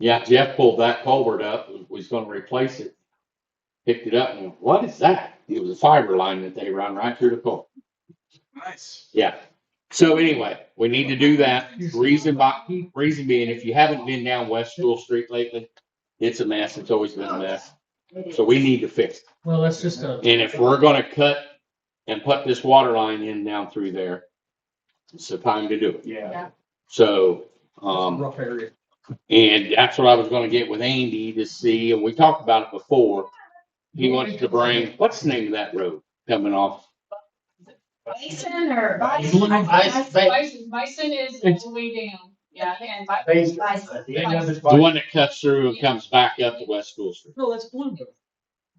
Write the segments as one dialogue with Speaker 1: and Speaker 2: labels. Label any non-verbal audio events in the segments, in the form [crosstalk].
Speaker 1: Yeah, Jeff pulled that culvert up, and was gonna replace it, picked it up and went, what is that? It was a fiber line that they run right through the culvert.
Speaker 2: Nice.
Speaker 1: Yeah. So anyway, we need to do that. Reason by, reason being, if you haven't been down West School Street lately, it's a mess. It's always been a mess. So we need to fix it.
Speaker 3: Well, that's just a,
Speaker 1: And if we're gonna cut and put this water line in down through there, it's the time to do it.
Speaker 2: Yeah.
Speaker 1: So, um,
Speaker 3: rough area.
Speaker 1: And that's what I was gonna get with Andy to see, and we talked about it before. He wants to bring, what's the name of that road coming off?
Speaker 4: Bison or
Speaker 3: Blue
Speaker 4: bison?
Speaker 3: Bison.
Speaker 5: Bison bison is all the way down, yeah, and Bi-
Speaker 4: Bison.
Speaker 1: The one that cuts through and comes back up to West School Street.
Speaker 3: No, Oh, that's Blue Road.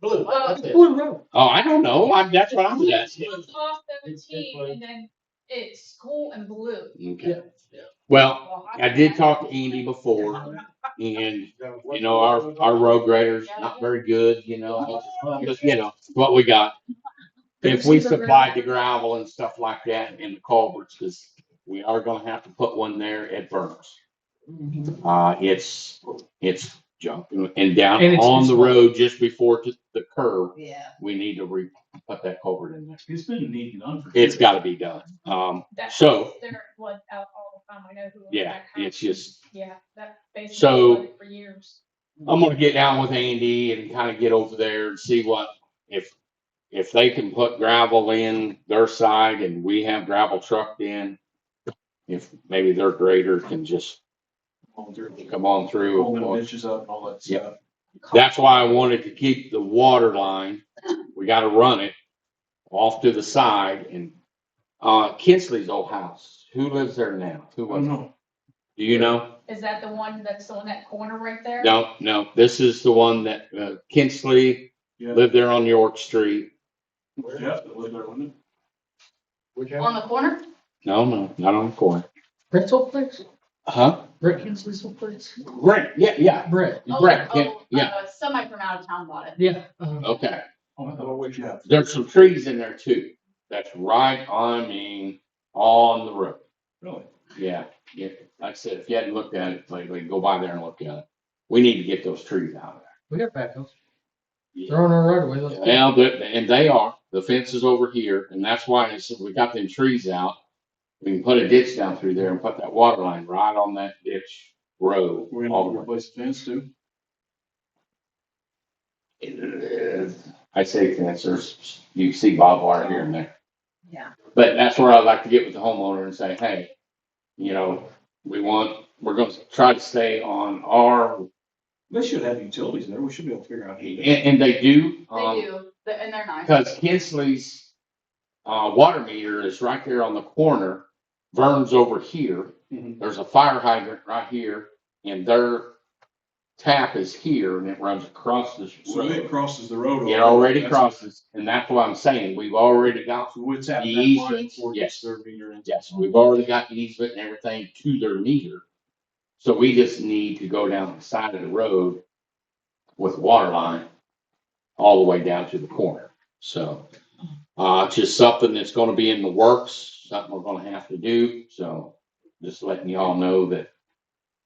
Speaker 2: Blue.
Speaker 5: that's
Speaker 3: That's Blue Road.
Speaker 1: Oh, I don't know. I, that's what I'm
Speaker 5: Blue's
Speaker 1: asking.
Speaker 5: off
Speaker 2: It's this
Speaker 5: seventeen
Speaker 2: way.
Speaker 5: and then it's cool and blue.
Speaker 1: Okay. Well, I did talk to Andy before and, you know, our, our road grader's not very good, you
Speaker 3: [laughs]
Speaker 1: know. Just, you know, what we got. If we supplied the gravel and stuff like that and the culverts, cause we are gonna have to put one there at Burns.
Speaker 3: Mm-hmm.
Speaker 1: Uh, it's, it's junk and down
Speaker 3: And it's-
Speaker 1: on
Speaker 3: it's
Speaker 1: the
Speaker 3: small.
Speaker 1: road just before to the curb,
Speaker 4: Yeah.
Speaker 1: we need to re, put that culvert in there.
Speaker 2: It's been neat and under.
Speaker 1: It's gotta be done. Um,
Speaker 5: That's
Speaker 1: so,
Speaker 5: their blood out all the time, I know who. owned
Speaker 1: yeah,
Speaker 5: that house.
Speaker 1: it's just,
Speaker 5: Yeah, that
Speaker 1: So-
Speaker 5: basically for years.
Speaker 1: I'm gonna get down with Andy and kind of get over there and see what, if, if they can put gravel in their side and we have gravel trucked in, if maybe their grader can just come on through.
Speaker 2: Holding bitches up and all that
Speaker 1: Yep.
Speaker 2: stuff.
Speaker 1: That's why I wanted to keep the water line. We gotta run it off to the side and, uh, Kinsley's old house. Who lives there now? Who
Speaker 2: Oh,
Speaker 1: was,
Speaker 2: no.
Speaker 1: do you know?
Speaker 5: Is that the one that's on that corner right there?
Speaker 1: No, no, this is the one that, uh, Kinsley
Speaker 2: Yeah.
Speaker 1: lived there on York Street.
Speaker 2: Yeah, it was there, wasn't
Speaker 5: On the corner?
Speaker 1: No, no, not on the corner.
Speaker 3: Brett's old place?
Speaker 1: Huh?
Speaker 3: Brett Kinsley's old place?
Speaker 1: Great, yeah, yeah.
Speaker 3: Brett,
Speaker 5: Oh,
Speaker 1: Brett,
Speaker 5: oh,
Speaker 1: yeah, yeah,
Speaker 5: uh, Somebody from out of town bought it.
Speaker 3: yeah. um,
Speaker 1: okay.
Speaker 2: it? Oh, what you have?
Speaker 1: There's some trees in there too. That's right on, I mean, on the road.
Speaker 2: Really?
Speaker 1: Yeah, yeah, like I said, if you hadn't looked at it lately, go by there and look at it. We need to get those trees out of
Speaker 3: We got backhoes.
Speaker 1: there.
Speaker 3: They're on our right away. Let's go.
Speaker 1: Now, that- and they are, the fence is over here, and that's why I said we got them trees out. We can put a ditch down through there and put that water line right on that ditch road.
Speaker 2: We're
Speaker 1: all
Speaker 2: gonna
Speaker 1: the way.
Speaker 2: replace the fence too?
Speaker 1: I say fence, there's, you see barbed wire here and there,
Speaker 4: Yeah.
Speaker 1: but that's where I'd like to get with the homeowner and say, hey, you know, we want, we're gonna try to stay on our,
Speaker 2: They should have utilities there. We should be able to figure out. how
Speaker 1: and,
Speaker 2: to-
Speaker 1: and they do. um,
Speaker 5: They do, the- and they're nice.
Speaker 1: Because Kinsley's uh, water meter is right there on the corner. Vern's over here.
Speaker 2: Mhm.
Speaker 1: There's a fire hydrant right here, and their tap is here, and it runs across this
Speaker 2: So it
Speaker 1: road.
Speaker 2: crosses the road.
Speaker 1: It already
Speaker 2: That's-
Speaker 1: crosses, and that's what I'm saying. We've already got,
Speaker 2: So it's at that
Speaker 1: Easy.
Speaker 2: line for
Speaker 1: Yes.
Speaker 2: their meter and-
Speaker 1: yes, we've already got the easement and everything to their meter. So we just need to go down the side of the road with water line all the way down to the corner. So. Uh, it's just something that's gonna be in the works, something we're gonna have to do, so just letting y'all know that.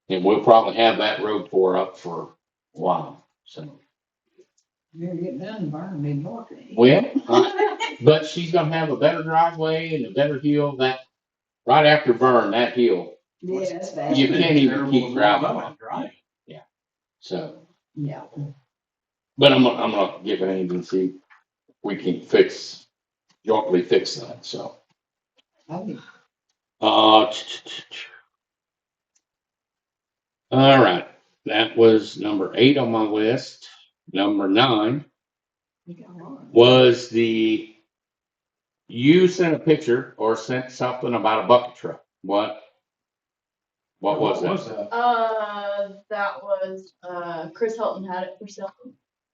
Speaker 1: And we'll probably have that road tore up for a while, so.
Speaker 4: You're getting done, Barn, been walking. [laughs]
Speaker 1: Well, uh, but she's gonna have a better driveway and a better hill that, right after Vern, that hill,
Speaker 4: Yeah, that's bad.
Speaker 1: You can't even keep
Speaker 2: Terrible
Speaker 1: gravel.
Speaker 2: line, Right.
Speaker 1: so.
Speaker 4: Yeah.
Speaker 1: But I'm, gonna- I'm gonna give it an see if we can fix, jointly fix that, so.
Speaker 4: I think
Speaker 1: Uh, all right, that was number eight on my list. Number nine
Speaker 4: we got one.
Speaker 1: was the, you sent a picture or sent something about a bucket truck. What? What was that?
Speaker 5: Uh, that was, uh, Chris Hilton had it for sale.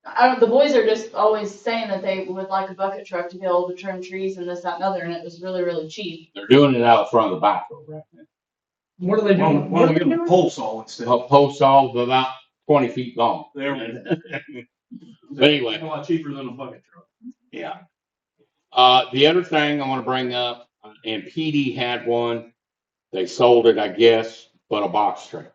Speaker 5: I don't, the boys are just always saying that they would like a bucket truck to be able to trim trees and this, that, and other, and it was really, really cheap.
Speaker 1: They're doing it out front of the back row right now.
Speaker 3: What are
Speaker 2: Why
Speaker 3: they doing?
Speaker 2: don't why
Speaker 3: What
Speaker 2: don't
Speaker 3: are
Speaker 2: we
Speaker 3: they
Speaker 2: give them a
Speaker 3: doing?
Speaker 2: pole saw instead?
Speaker 1: A post all of about twenty feet long.
Speaker 2: There we go.
Speaker 1: But anyway.
Speaker 2: A lot cheaper than a bucket truck.
Speaker 1: Yeah. Uh, the other thing I want to bring uh, up, and PD had one, they sold it, I guess, but a box truck.